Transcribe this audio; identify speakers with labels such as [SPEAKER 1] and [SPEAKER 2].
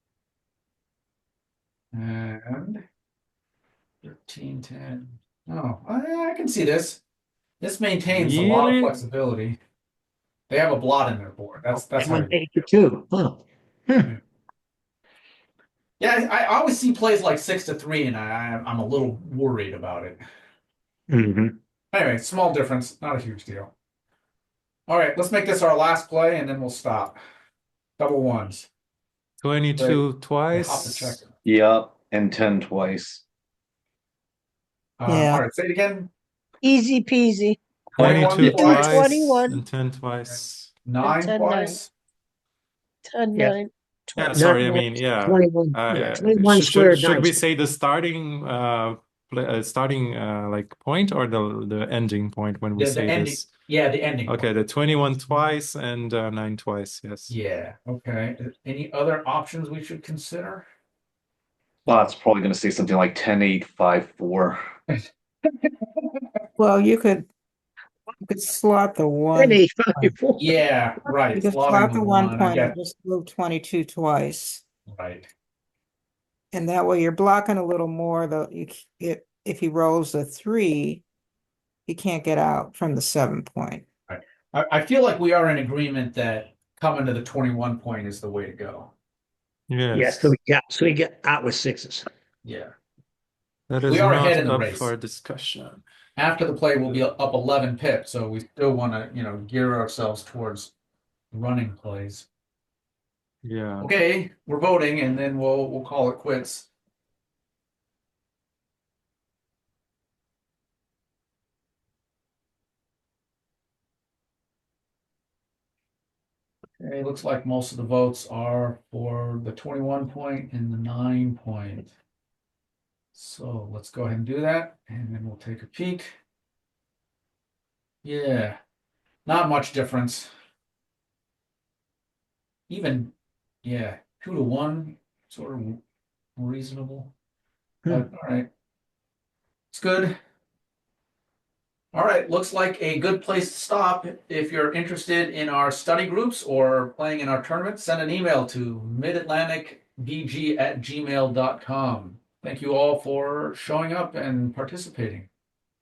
[SPEAKER 1] And. Thirteen, ten. Oh, I, I can see this. This maintains a lot of
[SPEAKER 2] Really?
[SPEAKER 1] flexibility. They have a blot in their board. That's, that's. how
[SPEAKER 3] One
[SPEAKER 1] they-
[SPEAKER 3] eighty-two, huh?
[SPEAKER 1] Yeah, I, I always see plays like six to three and I, I'm a little worried about it.
[SPEAKER 3] Mhm.
[SPEAKER 1] Anyway, small difference, not a huge deal. All right, let's make this our last play and then we'll stop. Double ones.
[SPEAKER 2] Twenty-two
[SPEAKER 1] Hop the
[SPEAKER 2] twice.
[SPEAKER 1] checker.
[SPEAKER 4] Yep, and ten twice.
[SPEAKER 1] Uh,
[SPEAKER 5] Yeah.
[SPEAKER 1] All right, say it again.
[SPEAKER 5] Easy peasy.
[SPEAKER 1] 21
[SPEAKER 2] Twenty-two
[SPEAKER 1] twice.
[SPEAKER 2] twice.
[SPEAKER 5] 21.
[SPEAKER 2] And ten twice.
[SPEAKER 1] Nine
[SPEAKER 5] ten,
[SPEAKER 1] twice.
[SPEAKER 5] Ten,
[SPEAKER 3] Yeah.
[SPEAKER 5] nine,
[SPEAKER 2] Yeah,
[SPEAKER 5] twenty.
[SPEAKER 2] sorry, I mean, yeah.
[SPEAKER 3] Twenty-one,
[SPEAKER 2] Uh,
[SPEAKER 3] yeah,
[SPEAKER 2] yeah,
[SPEAKER 3] twenty-one
[SPEAKER 2] should-
[SPEAKER 3] squared.
[SPEAKER 2] should, should we
[SPEAKER 3] dice.
[SPEAKER 2] say the starting uh, pla uh starting uh like point or the the ending point when we
[SPEAKER 1] Yeah, the
[SPEAKER 2] say
[SPEAKER 1] ending-
[SPEAKER 2] this
[SPEAKER 1] Yeah, the ending. one.
[SPEAKER 2] okay the 21 twice and uh, 9 twice yes
[SPEAKER 1] Yeah, okay. Any other options we should consider?
[SPEAKER 4] Well, it's probably gonna say something like ten, eight, five, four.
[SPEAKER 6] Well, you could, you could slot the one, you
[SPEAKER 3] Twenty, five, four.
[SPEAKER 1] Yeah, right.
[SPEAKER 6] could
[SPEAKER 1] slot
[SPEAKER 6] slot
[SPEAKER 1] in
[SPEAKER 6] the one
[SPEAKER 1] I
[SPEAKER 6] point
[SPEAKER 1] guess,
[SPEAKER 6] and just move twenty-two twice.
[SPEAKER 1] Right,
[SPEAKER 6] And that way you're blocking a little more, though, you, c- if, if he rolls a three, he can't get out from the seven point.
[SPEAKER 1] I, I feel like we are in agreement that coming to the twenty-one point is the way to go.
[SPEAKER 2] yes
[SPEAKER 3] Yeah, so we got, so we got out with sixes.
[SPEAKER 1] Yeah.
[SPEAKER 2] that
[SPEAKER 1] we
[SPEAKER 2] is
[SPEAKER 1] are
[SPEAKER 2] not
[SPEAKER 1] ahead in the
[SPEAKER 2] up
[SPEAKER 1] race.
[SPEAKER 2] for discussion
[SPEAKER 1] After the play, we'll be up eleven pips, so we still wanna, you know, gear ourselves towards running plays.
[SPEAKER 2] yeah
[SPEAKER 1] Okay, we're voting and then we'll, we'll call it quits. Okay, it looks like most of the votes are for the twenty-one point and the nine point. So let's go ahead and do that and then we'll take a peek. Yeah, not much difference. Even yeah, two to one, sort of reasonable.
[SPEAKER 3] Hmm.
[SPEAKER 1] But, all right. It's good. All right, looks like a good place to stop. If you're interested in our study groups or playing in our tournament, send an email to midatlanticbg at gmail.com. Thank you all for showing up and participating.